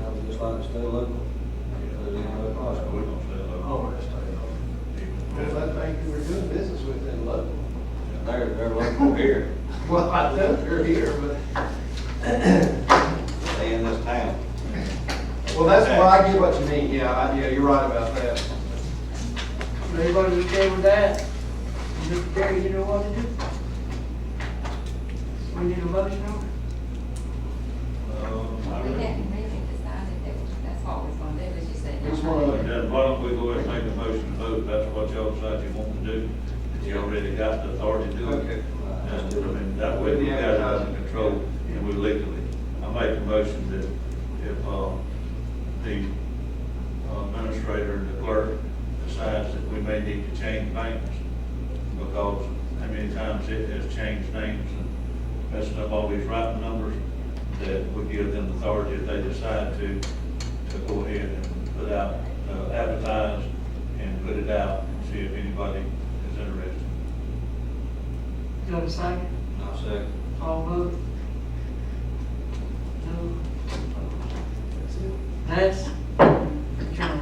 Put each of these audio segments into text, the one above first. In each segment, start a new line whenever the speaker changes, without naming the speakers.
like stay local. There's any other
We're
possible.
gonna stay local.
Oh, we're gonna stay
Yeah.
Because I think we're doing business with them local.
They're, they're local here,
Well, I know they're here, but,
they in this town.
well, that's why I get what you mean, yeah, I, yeah, you're right about that.
Everybody okay with that? Mr. Terry, you know what to do? We need a motion on it?
Um, I
We
reckon-
didn't make it decided that that's what we're gonna do, was you said.
It's one of
Yeah, why don't we go ahead and make a motion to vote, that's what y'all decide you want to do, that you already got the authority to do it.
Okay.
And, I mean, that way we got it under control, and we legally, I make a motion that if, uh, the uh, administrator and the clerk decides that we may need to change names, because how many times it has changed names and messing up all these writing numbers, that we give them authority if they decide to, to go ahead and put out, uh, advertise and put it out and see if anybody is interested.
You got a second?
I say,
All vote? No? That's adjourned.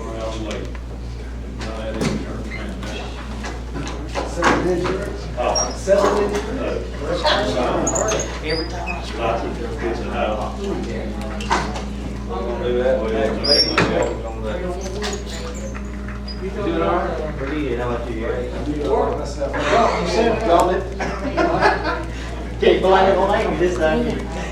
Around late. Not at any turn, man, that's-
Seven digits,
Oh.
seven digits.
Lots of kids in that.
we're gonna do that, we're gonna make it, we're gonna do that.
You
Doing all right? Pretty good, how about you?
Well, you said, y'all did.
Can't blame it on language this time.